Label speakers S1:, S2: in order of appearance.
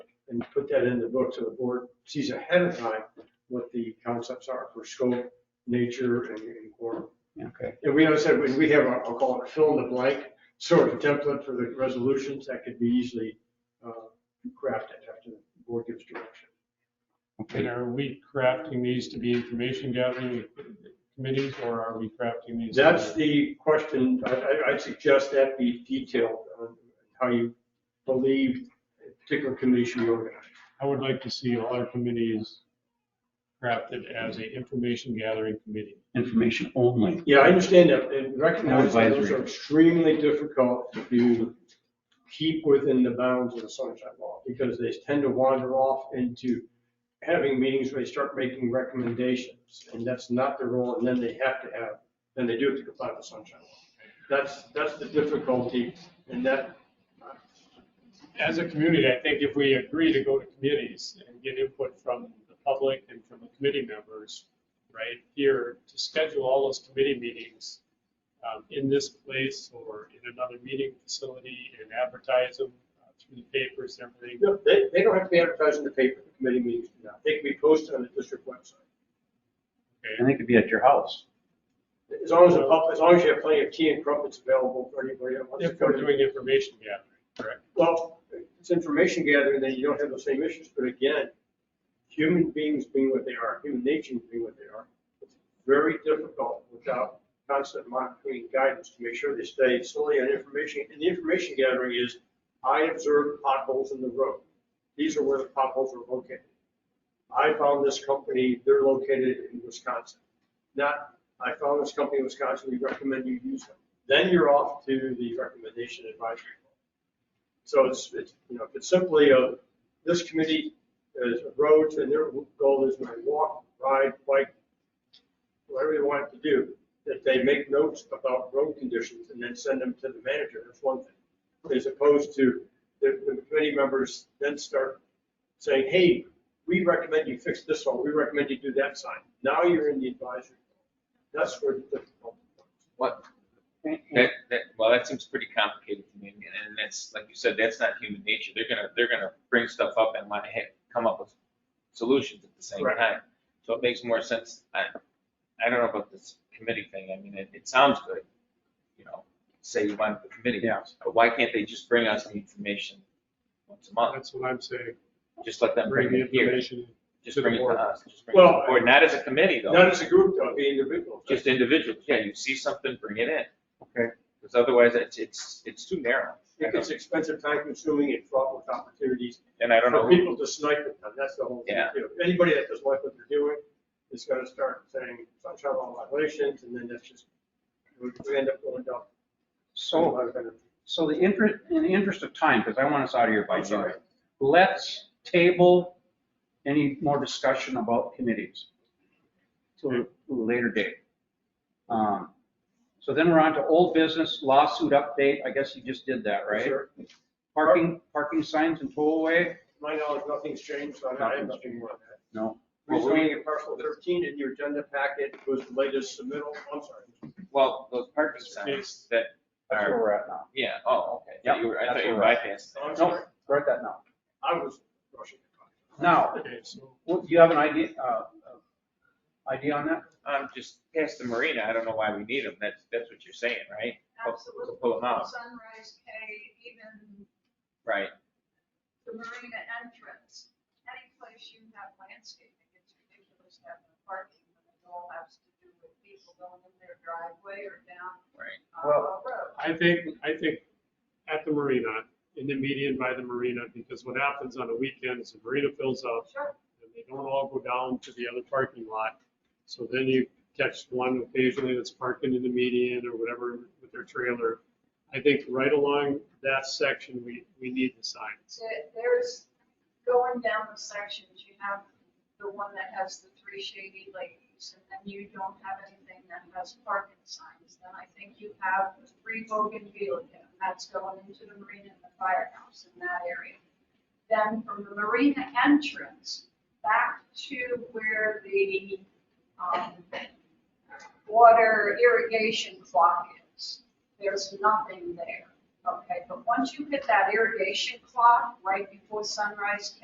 S1: and put that in the book so the board sees ahead of time what the concepts are for scope, nature, and and quorum.
S2: Okay.
S1: And we also said, we- we have, a- I'll call it a fill in the blank sort of template for the resolutions that could be easily uh, crafted after the board gives direction.
S2: Okay,
S3: And are we crafting these to be information gathering committees or are we crafting these?
S1: That's the question, I, I, I'd suggest that be detailed on how you believe a particular committee should be organized.
S3: I would like to see all our committees crafted as a information gathering committee.
S2: information only.
S1: Yeah, I understand that, and recognize that those
S2: Advisory.
S1: are extremely difficult to keep within the bounds of the sunshine law, because they tend to wander off into having meetings where they start making recommendations, and that's not their role, and then they have to have, then they do have to comply with the sunshine law. That's, that's the difficulty, and that,
S3: As a community, I think if we agree to go to committees and get input from the public and from the committee members, right here, to schedule all those committee meetings um, in this place or in another meeting facility and advertise them uh, through the papers and everything.
S1: No, they, they don't have to be advertised in the paper, the committee meetings do not. They can be posted on the district website.
S2: And it could be at your house.
S1: As long as, the pub- as long as you have plenty of tea and crumpets available for anybody that wants to
S3: If
S1: come
S3: we're
S1: in.
S3: doing information gathering, correct?
S1: Well, it's information gathering, then you don't have those same issues, but again, human beings being what they are, human nature being what they are, it's very difficult without constant monitoring and guidance to make sure they stay solely on information. And the information gathering is, I observed potholes in the road. These are where the potholes are located. I found this company, they're located in Wisconsin. Not, I found this company in Wisconsin, we recommend you use them. Then you're off to the recommendation advisory. So it's, it's, you know, if it's simply a, this committee is roads and their goal is to walk, ride, bike, whatever they want to do, that they make notes about road conditions and then send them to the manager, that's one thing. As opposed to the, the committee members then start saying, hey, we recommend you fix this one, we recommend you do that sign. Now you're in the advisory. That's where the difficulty comes.
S4: What, that, that, well, that seems pretty complicated to me, and and that's, like you said, that's not human nature, they're gonna, they're gonna bring stuff up and want to come up with solutions at the same
S1: Right.
S4: time. So it makes more sense, I, I don't know about this committee thing, I mean, it, it sounds good, you know, say you want the committee,
S2: Yeah.
S4: but why can't they just bring us the information once a month?
S3: That's what I'm saying.
S4: Just let them
S3: Bring
S4: bring
S3: the
S4: it Uh, here,
S3: information.
S4: just
S3: to the
S4: bring it to
S3: board.
S4: us, just bring it to the
S1: Well,
S4: board, not as a committee though.
S1: Not as a group, though, the individual.
S4: just individuals, yeah, you see something, bring it in.
S2: Okay.
S4: Because otherwise, it's, it's, it's too narrow. I
S1: It's
S4: don't-
S1: expensive, time consuming, and fraught with opportunities.
S4: And I don't know,
S1: For
S4: who-
S1: people to snipe at them, that's the whole thing.
S4: Yeah.
S1: too. Anybody that doesn't like what they're doing is gonna start saying sunshine law violations, and then that's just, we we end up going down.
S2: So, so the interest, in the interest of time, because I want us out of here by
S1: I'm sorry.
S2: noon, let's table any more discussion about committees to a- to a later date. Um, So then we're on to old business lawsuit update. I guess you just did that, right?
S1: Sure.
S2: Parking, parking signs and tollway?
S1: My knowledge, nothing's changed, so I have nothing more on that.
S2: No. Well, we-
S1: Rezoning at parcel thirteen in your agenda packet was the latest submittal, I'm sorry.
S4: well, those parking signs that
S2: That's where
S4: are,
S2: we're at now.
S4: yeah, oh, okay.
S2: Yep,
S4: You were- I
S2: that's
S4: thought you
S2: where we're at.
S4: bypassed
S1: I'm
S4: that.
S1: sorry,
S2: Nope, we're at that now.
S1: I was rushing.
S2: Now,
S3: Okay, so
S2: well, do you have an idea, uh, uh, idea on that?
S4: Um, just past the marina, I don't know why we need them, that's, that's what you're saying, right? Pull-
S5: Absolutely.
S4: Pull them out,
S5: Sunrise K, even
S4: right,
S5: the marina entrance, any place you have landscaping, it's ridiculous having parking. when It all has to do with people going in their driveway or down
S4: right.
S5: uh,
S2: Well-
S5: road.
S3: I think, I think at the marina, in the median by the marina, because what happens on the weekends, the marina fills up
S5: Sure,
S3: and they don't all go down to the other parking lot. So then you catch one occasionally that's parking in the median or whatever with their trailer. I think right along that section, we, we need the signs.
S5: There- there's, going down the sections, you have the one that has the three shady ladies, and then you don't have anything that has parking signs. Then I think you have three bougainvillea, and that's going into the marina and the firehouse in that area. Then from the marina entrance back to where the, um, water irrigation clock is, there's nothing there. Okay, but once you hit that irrigation clock right before sunrise